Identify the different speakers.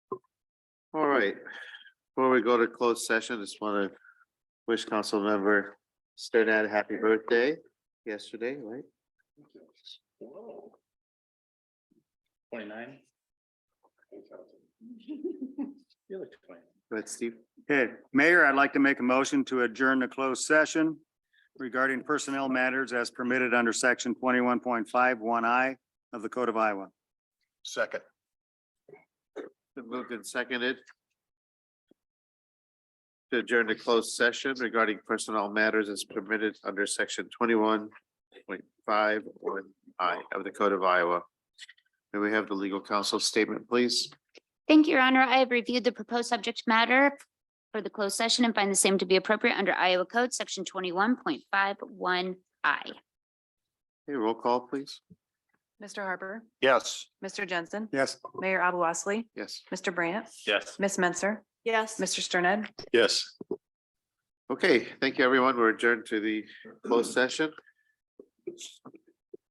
Speaker 1: All right, before we go to closed session, just want to wish council member Sternad happy birthday yesterday, right?
Speaker 2: Twenty-nine? You look twenty.
Speaker 1: But Steve,
Speaker 3: Okay, Mayor, I'd like to make a motion to adjourn the closed session regarding personnel matters as permitted under section twenty-one point five one I of the Code of Iowa.
Speaker 4: Second.
Speaker 1: been moved and seconded. To adjourn to closed session regarding personnel matters as permitted under section twenty-one point five one I of the Code of Iowa. May we have the legal counsel statement, please?
Speaker 5: Thank you, Your Honor. I have reviewed the proposed subject matter for the closed session and find the same to be appropriate under Iowa Code, section twenty-one point five one I.
Speaker 1: Hey, roll call, please.
Speaker 6: Mr. Harper,
Speaker 4: Yes.
Speaker 6: Mr. Jensen,
Speaker 3: Yes.
Speaker 6: Mayor Abou Osley,
Speaker 1: Yes.
Speaker 6: Mr. Brandt,
Speaker 2: Yes.
Speaker 6: Miss Menser,
Speaker 7: Yes.
Speaker 6: Mr. Sterned.
Speaker 4: Yes.
Speaker 1: Okay, thank you, everyone. We're adjourned to the closed session.